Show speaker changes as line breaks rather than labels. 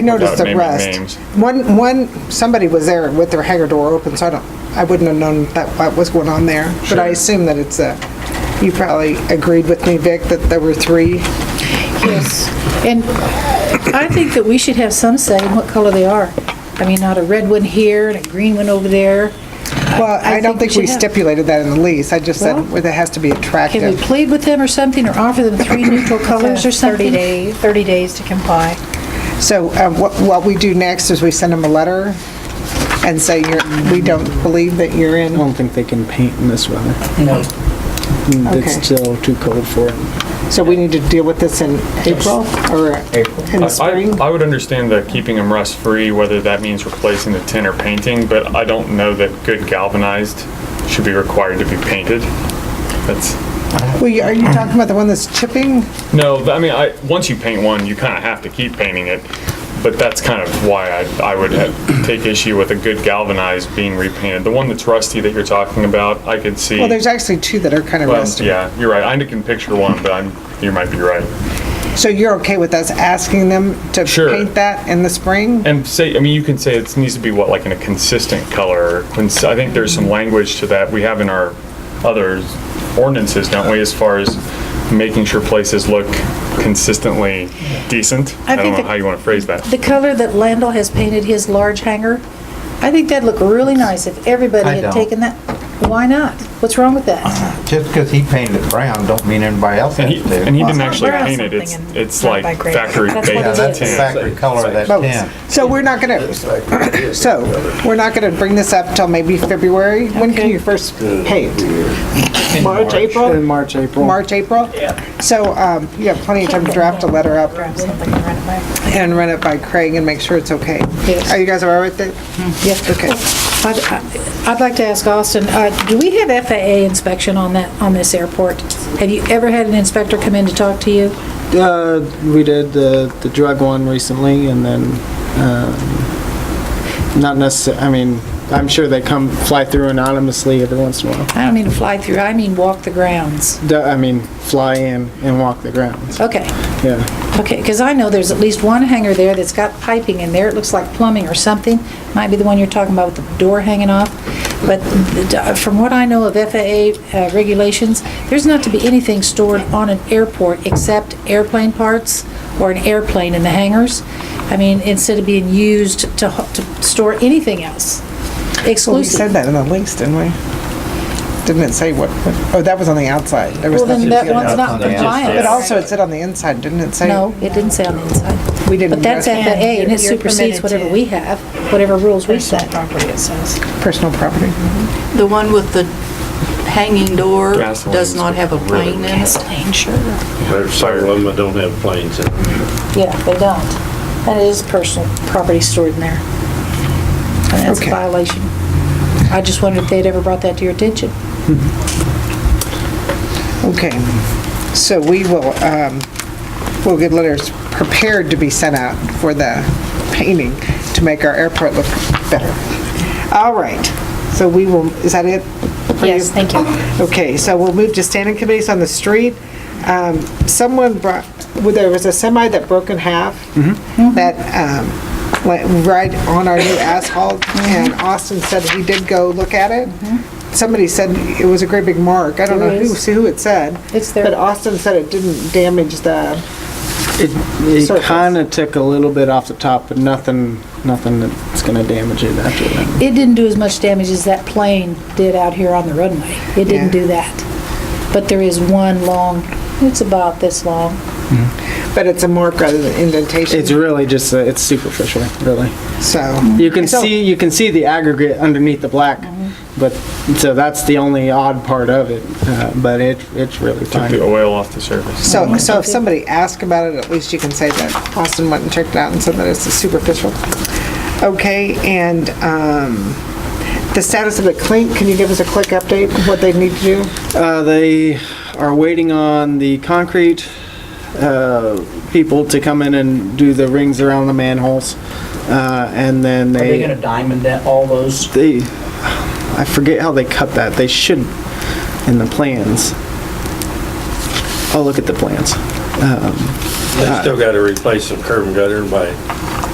I noticed
Without
a
naming
rust.
names.
One, one, somebody was there with their hangar door open, so I don't, I wouldn't have known that, what was going on there. But I
Sure.
assume that it's a, you probably agreed with me, Vic, that there were three.
Yes, and I think that we should have some say in what color they are. I mean, not a red one here and a green one over there.
Well,
I
I don't think
think we
we
should have-
stipulated that in the lease. I just said
Well-
where it has to be
Can we
attractive.
plead with them or something, or offer them three neutral colors or something?
30 day, 30 days to comply.
So uh, what, what we do next is we send them a letter and say, you're, we don't believe that you're in.
I don't think they can paint in this weather.
No.
Mm,
Okay.
It's still too cold for it.
So we need to deal with this in April or in the
I- I-
spring?
I would understand the keeping them rust-free, whether that means replacing the tin or painting, but I don't know that good galvanized should be required to be painted. That's,
Well, you- are you talking about the one that's chipping?
no, I mean, I, once you paint one, you kind of have to keep painting it, but that's kind of why I, I would have- take issue with a good galvanized being repainted. The one that's rusty that you're talking about, I could see.
Well, there's actually two that are kind of
Well,
rusty.
Yeah, you're right. I can picture one, but I'm, you might be right.
So you're okay with us asking them to
Sure.
paint that in the spring?
And say, I mean, you can say it needs to be what, like in a consistent color. or cons- I think there's some language to that we have in our other ordinances, don't we, as far as making sure places look consistently decent? I
think
don't know
that-
how you want to phrase that.
The color that Landell has painted his large hangar, I think that'd look really nice if everybody
I
had
don't.
taken that. Why not? What's wrong with that?
Just because he painted it brown, don't mean anybody else
And
has
he,
to.
and he didn't
not
actually
brown.
paint it. It's,
Something in-
it's
not
like
by grade.
factory
That's what
Yeah,
baked
it
that's the
is.
tin.
factory color of that
Both.
tin.
Oh, So we're not gonna, so, we're not gonna bring this up till maybe February? When can
Okay.
you first paint? March,
In
April?
March, April.
March, April? Yeah. So, um, you have plenty of time to draft a letter up
Grab something and run it back.
and run it by Craig and make sure it's okay.
Yes.
Are you guys all right with that?
Yes,
Okay.
I'd- I'd like to ask Austin, uh, do we have FAA inspection on that, on this airport? Have you ever had an inspector come in to talk to you?
Uh, we did the, the drug one recently and then, um, not necessar, I mean, I'm sure they come fly through anonymously every once in a while.
I don't mean to fly through, I mean walk the grounds.
D- I mean, fly in and walk the grounds.
Okay,
Yeah.
okay, because I know there's at least one hangar there that's got piping in there. It looks like plumbing or something. Might be the one you're talking about with the door hanging off. But the- uh, from what I know of FAA uh, regulations, there's not to be anything stored on an airport except airplane parts or an airplane in the hangars. I mean, instead of being used to, ho- to store anything else.
Well, we said
Exclusive.
that in the lease, didn't we? Didn't it say what, what- oh, that was on the outside. There was
Well, then
nothing-
that one's not
Yeah.
But
compliant.
also it said on the inside, didn't it say?
No, it didn't say on the inside.
We didn't.
But that's
address
FAA, and
You're-
it
you're
supersedes
permitted
whatever
to-
we have, whatever rules we
Personal
set.
property, it says.
Personal property.
The one with the hanging door
Gasoline
does not
is
have a
really-
plane in it.
There's several of them that don't have planes in them.
Yeah, they don't. That is personal property stored in there. And that's a
Okay.
violation. I just wondered if they'd ever brought that to your attention.
Okay, so we will, um, we'll get letters prepared to be sent out for the painting to make our airport look better. All right, so we will, is that it? for you?
Yes, thank you.
Okay, so we'll move to standing committees on the street. Um, Someone brought, well, there was a semi that broke in half
Mm-hmm.
that um, went right on our new asphalt,
Mm-hmm.
and Austin said he did go look at it. Somebody said it was a great big mark. I don't know
There
who,
Mm-hmm. is.
who it said.
It's there.
But Austin said it didn't damage the,
It,
Surface.
it kinda took a little bit off the top, but nothing, nothing that's gonna damage it after that.
It didn't do as much damage as that plane did out here on the runway. It
Yeah.
didn't do that. But there is one long, it's about this long.
but it's a mark rather than indentation,
It's really just, uh, it's superficial, really.
so.
You can
So-
see, you can see the aggregate underneath the black,
Mm-hmm.
but, so that's the only odd part of it, uh, but it, it's really
Took
fine.
the oil off the surface.
So, so if somebody asks about it, at least you can say that Austin went and checked it out and said that it's superficial. Okay, and um, the status of the clink, can you give us a quick update of what they need to do?
Uh, they are waiting on the concrete, uh, people to come in and do the rings around the manholes, uh, and then
Are they
they,
gonna diamond that, all those?
they, I forget how they cut that, they should, in the plans. I'll look at the plans.
They still gotta replace some curb and gutter and by